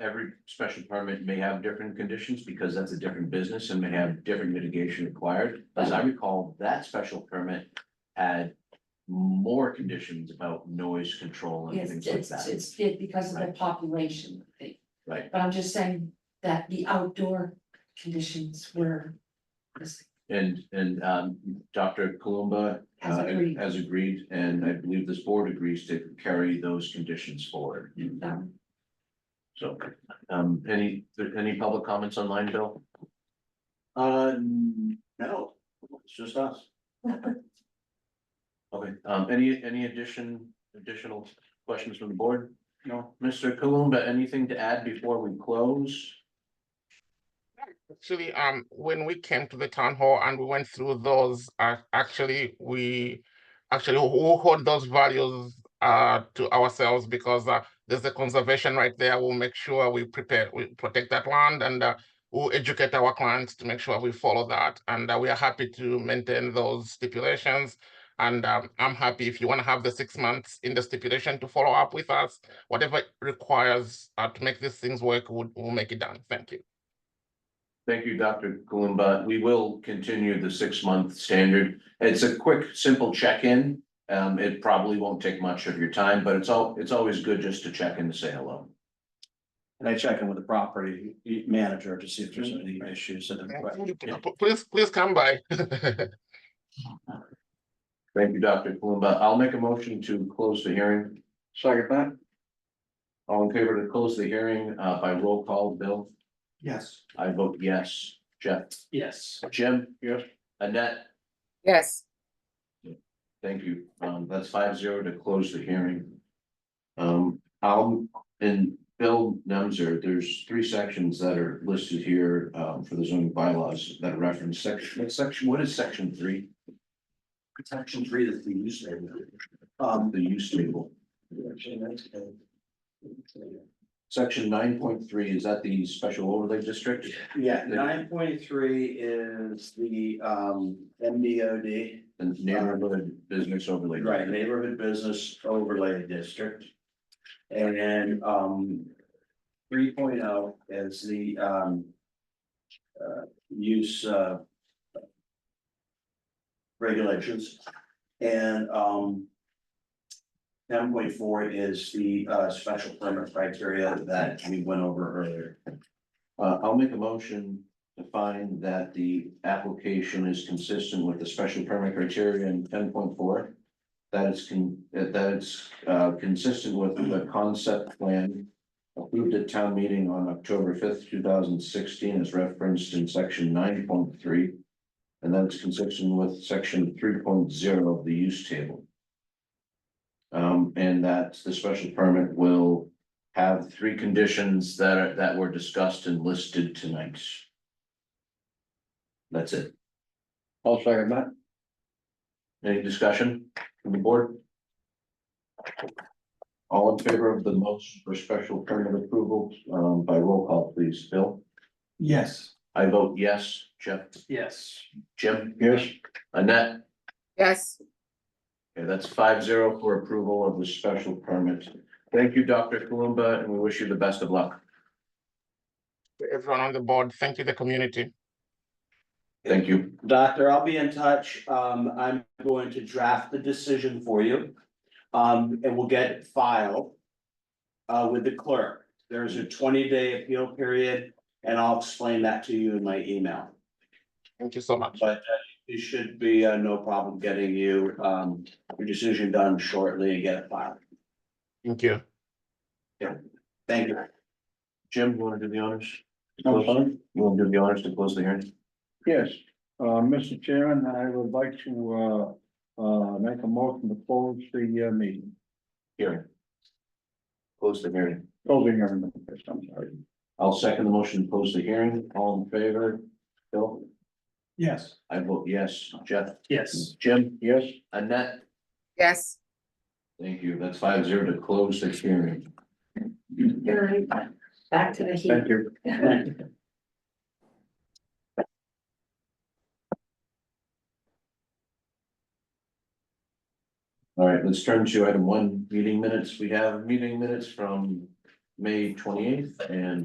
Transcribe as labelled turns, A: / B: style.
A: every special permit may have different conditions because that's a different business and may have different mitigation required. As I recall, that special permit had more conditions about noise control and
B: Yes,
A: things like
B: it's,
A: that,
B: it's it because of the population thing,
A: right?
B: but I'm just saying that the outdoor conditions were. this
A: And, and, um, Dr. Kalumba
B: Has
A: uh,
B: agreed.
A: Has agreed, and I believe this board agrees to carry those conditions forward.
B: um,
A: So, um, any, any public comments online, Bill?
C: Uh, no, it's just us.
A: Okay, um, any, any addition, additional questions from the board?
C: No.
A: Mr. Kalumba, anything to add before we close?
D: Actually, um, when we came to the town hall and we went through those, uh, actually, we actually who who hold those values uh to ourselves because uh, there's a conservation right there. We'll make sure we prepare, we protect that land and uh, we'll educate our clients to make sure we follow that. And uh, we are happy to maintain those stipulations. And um, I'm happy if you want to have the six months in the stipulation to follow up with us, whatever it requires uh, to make these things work, we'll, we'll make it done. Thank you.
A: Thank you, Dr. Kalumba. We will continue the six-month standard. It's a quick, simple check-in. Um, it probably won't take much of your time, but it's all, it's always good just to check in to say hello.
C: And I check in with the property manager to see if there's any issues that
D: Yeah,
C: are.
D: p- p- Please, please come by.
A: Thank you, Dr. Kalumba. I'll make a motion to close the hearing.
C: Second that?
A: All in favor to close the hearing, uh, by roll call, Bill?
C: Yes.
A: I vote yes. Jeff?
C: Yes.
A: Jim? Yes. Annette?
E: yes.
A: Thank you. Um, that's five zero to close the hearing. Um, I'll, and Bill Nemser, there's three sections that are listed here, um, for the zoning bylaws that reference section, what section, what is section three?
C: Protection three is the use table. Um,
A: The use table. Section nine point three, is that the special overlay district?
C: yeah, nine point three is the um MBOD,
A: The neighborhood business overlay.
C: right, neighborhood business overlay district. And then um three oh is the um uh use uh regulations and um ten point four is the uh special permit criteria that we went over earlier.
A: Uh, I'll make a motion to find that the application is consistent with the special permit criteria in ten point four. That it's con, that that it's, uh, consistent with the concept plan approved at town meeting on October fifth, two thousand sixteen, as referenced in section nine point three. And that it's consistent with section three point zero of the use table. Um, and that the special permit will have three conditions that are, that were discussed and listed tonight. That's it.
C: I'll second that.
A: Any discussion from the board? All in favor of the motion for special permit approval, um, by roll call, please, Bill?
C: Yes.
A: I vote yes, Jeff,
C: Yes.
A: Jim,
C: Yes.
A: Annette?
E: Yes.
A: Okay, that's five zero for approval of the special permit. Thank you, Dr. Kalumba, and we wish you the best of luck.
D: Everyone on the board, thank you, the community.
A: Thank you.
C: Doctor, I'll be in touch. Um, I'm going to draft the decision for you. Um, and we'll get it filed. Uh, with the clerk. There's a twenty day appeal period and I'll explain that to you in my email.
D: Thank you so much.
C: But uh, it should be uh, no problem getting you um your decision done shortly and get it filed.
D: Thank you.
C: Thank you.
A: Jim, you wanna do the honors?
F: I'm sorry?
A: You wanna do the honors to close the hearing?
F: Yes, uh, Mr. Chairman, I would like to, uh, uh, make a motion to close the, uh, meeting.
A: Hearing. Close the hearing.
F: Closing everything, I'm sorry.
A: I'll second the motion to close the hearing. All in favor? Bill?
F: Yes.
A: I vote yes. Jeff?
C: Yes.
A: Jim?
F: Yes.
A: Annette?
E: Yes.
A: Thank you. That's five zero to close the hearing.
B: very- Back to the heat.
A: Thank you. All right, let's turn to item one, meeting minutes. We have meeting minutes from May twenty eighth and